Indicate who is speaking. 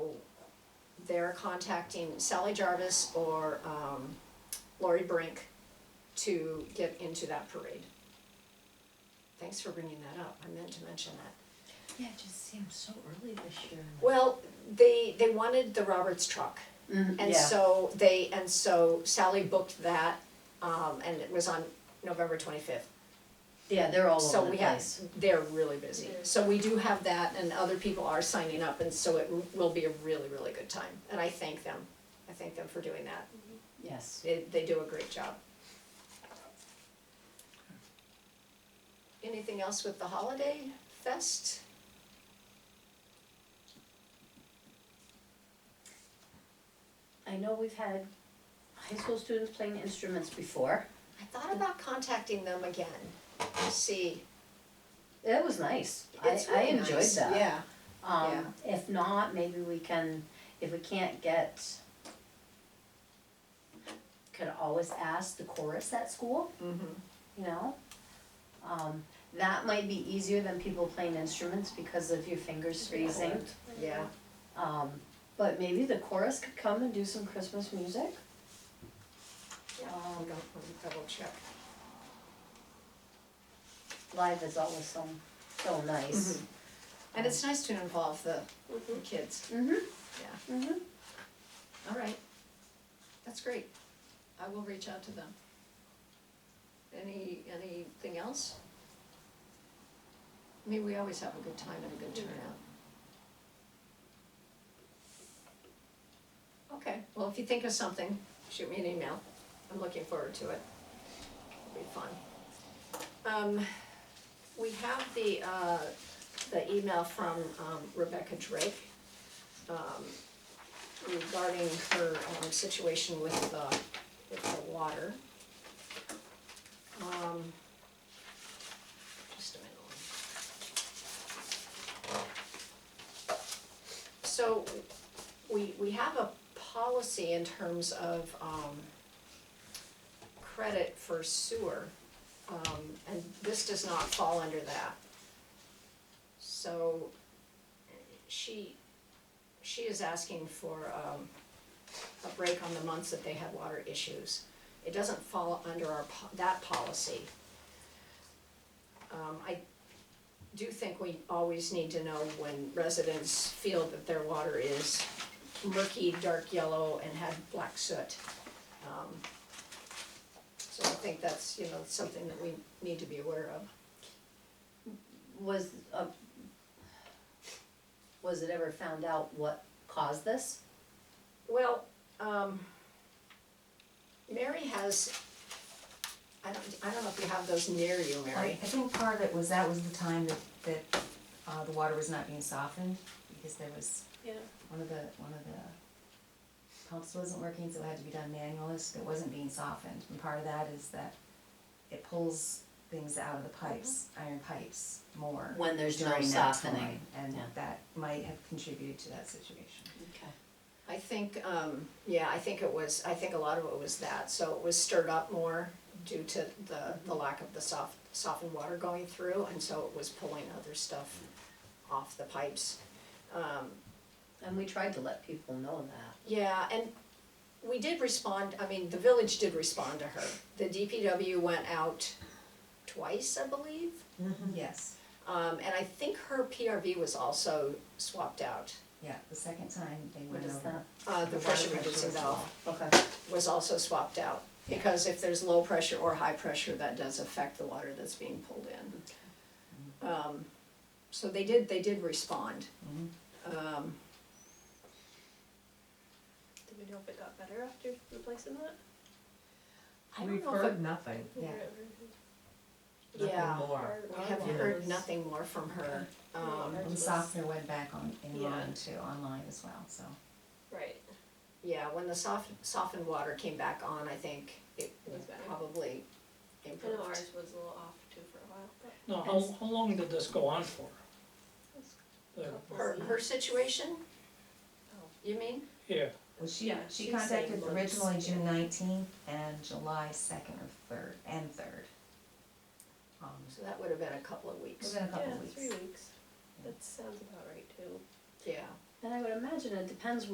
Speaker 1: they're contacting Sally Jarvis or um, Lori Brink to get into that parade. Thanks for bringing that up, I meant to mention that.
Speaker 2: Yeah, it just seems so early this year.
Speaker 1: Well, they, they wanted the Roberts truck.
Speaker 2: Mm-hmm.
Speaker 1: And so they, and so Sally booked that, um, and it was on November twenty-fifth.
Speaker 2: Yeah, they're all
Speaker 1: So
Speaker 2: over the
Speaker 1: we have,
Speaker 2: place.
Speaker 1: they're really busy.
Speaker 3: Yeah.
Speaker 1: So we do have that and other people are signing up and so it will be a really, really good time. And I thank them. I thank them for doing that.
Speaker 2: Yes.
Speaker 1: They, they do a great job. Anything else with the holiday fest?
Speaker 2: I know we've had high school students playing instruments before.
Speaker 1: I thought about contacting them again, to see.
Speaker 2: That was nice. I,
Speaker 1: It's
Speaker 2: I
Speaker 1: really
Speaker 2: enjoyed
Speaker 1: nice.
Speaker 2: that.
Speaker 1: Yeah.
Speaker 2: Um, if not, maybe we can, if we can't get, could always ask the chorus at school,
Speaker 1: Mm-hmm.
Speaker 2: you know? Um, that might be easier than people playing instruments because of your fingers freezing.
Speaker 1: Yeah,
Speaker 2: Um, but maybe the chorus could come and do some Christmas music.
Speaker 1: I'll
Speaker 2: Um,
Speaker 1: Oh, go and double check.
Speaker 2: live is always so, so nice.
Speaker 1: And it's nice to involve the the
Speaker 3: Mhm.
Speaker 1: kids,
Speaker 2: Mm-hmm.
Speaker 1: yeah,
Speaker 2: Mm-hmm.
Speaker 1: all right. That's great. I will reach out to them. Any, anything else? I mean, we always have a good time and a good turnout. Okay, well, if you think of something, shoot me an email. I'm looking forward to it. It'll be fun. Um, we have the, uh, the email from um, Rebecca Drake um, regarding her um, situation with the, with the water. Um, just a minute. So, we, we have a policy in terms of, um, credit for sewer, um, and this does not fall under that. So, she, she is asking for, um, a break on the months that they had water issues. It doesn't fall under our, po- that policy. Um, I do think we always need to know when residents feel that their water is murky, dark yellow, and had black soot. Um, So I think that's, you know, something that we need to be aware of.
Speaker 2: Was, uh, was it ever found out what caused this?
Speaker 1: Well, um, Mary has, I don't, I don't know if you have those near you,
Speaker 4: I, I
Speaker 1: Mary.
Speaker 4: think part of it was that was the time that, that, uh, the water was not being softened, because there was,
Speaker 3: Yeah.
Speaker 4: one of the, one of the pumps wasn't working, so it had to be done manually, so it wasn't being softened, and part of that is that it pulls things out of the pipes, iron pipes, more
Speaker 2: When there's no
Speaker 4: during that
Speaker 2: softening,
Speaker 4: time, and
Speaker 2: yeah.
Speaker 4: that might have contributed to that situation.
Speaker 2: Okay.
Speaker 1: I think, um, yeah, I think it was, I think a lot of it was that, so it was stirred up more due to the, the lack of the soft, softened water going through, and so it was pulling other stuff off the pipes. Um,
Speaker 2: And we tried to let people know that.
Speaker 1: Yeah, and we did respond, I mean, the village did respond to her. The DPW went out twice, I believe.
Speaker 3: Mm-hmm.
Speaker 4: Yes,
Speaker 1: Um, and I think her PRV was also swapped out.
Speaker 4: yeah, the second time they
Speaker 2: What
Speaker 4: went
Speaker 2: is
Speaker 4: over,
Speaker 2: that?
Speaker 1: Uh, the
Speaker 4: The
Speaker 1: pressure
Speaker 4: water pressure
Speaker 1: reducing
Speaker 4: was
Speaker 1: valve
Speaker 2: Okay.
Speaker 1: was also swapped out. Because if there's low pressure or high pressure, that does affect the water that's being pulled in. Um, so they did, they did respond.
Speaker 4: Mhm.
Speaker 1: Um,
Speaker 3: Do we know if it got better after replacing that?
Speaker 1: I don't
Speaker 5: We've
Speaker 1: know if,
Speaker 5: heard nothing,
Speaker 4: Yeah.
Speaker 1: it-
Speaker 5: nothing
Speaker 1: yeah,
Speaker 5: more.
Speaker 1: I have
Speaker 5: Yeah.
Speaker 1: heard nothing more from her. Um,
Speaker 4: the softener went back on, in
Speaker 3: Yeah.
Speaker 4: line too, online as well, so.
Speaker 3: Right.
Speaker 1: Yeah, when the soft, softened water came back on, I think it
Speaker 3: It was better.
Speaker 1: probably
Speaker 3: I know
Speaker 1: improved.
Speaker 3: ours was a little off too for a while, but
Speaker 6: No, how, how long did this go on for?
Speaker 3: It's
Speaker 6: The-
Speaker 3: couple
Speaker 1: Her, her situation?
Speaker 3: Oh.
Speaker 1: You mean?
Speaker 6: Yeah,
Speaker 4: Well, she, uh,
Speaker 3: Yeah,
Speaker 4: she
Speaker 3: she's saying
Speaker 4: contacted
Speaker 3: months,
Speaker 4: originally
Speaker 3: yeah.
Speaker 4: June nineteenth and July second or third, and third. Um,
Speaker 1: So that would have been a couple of weeks.
Speaker 4: within a couple
Speaker 3: Yeah,
Speaker 4: of weeks.
Speaker 3: three weeks. That sounds about right too.
Speaker 1: Yeah.
Speaker 2: And I would imagine it depends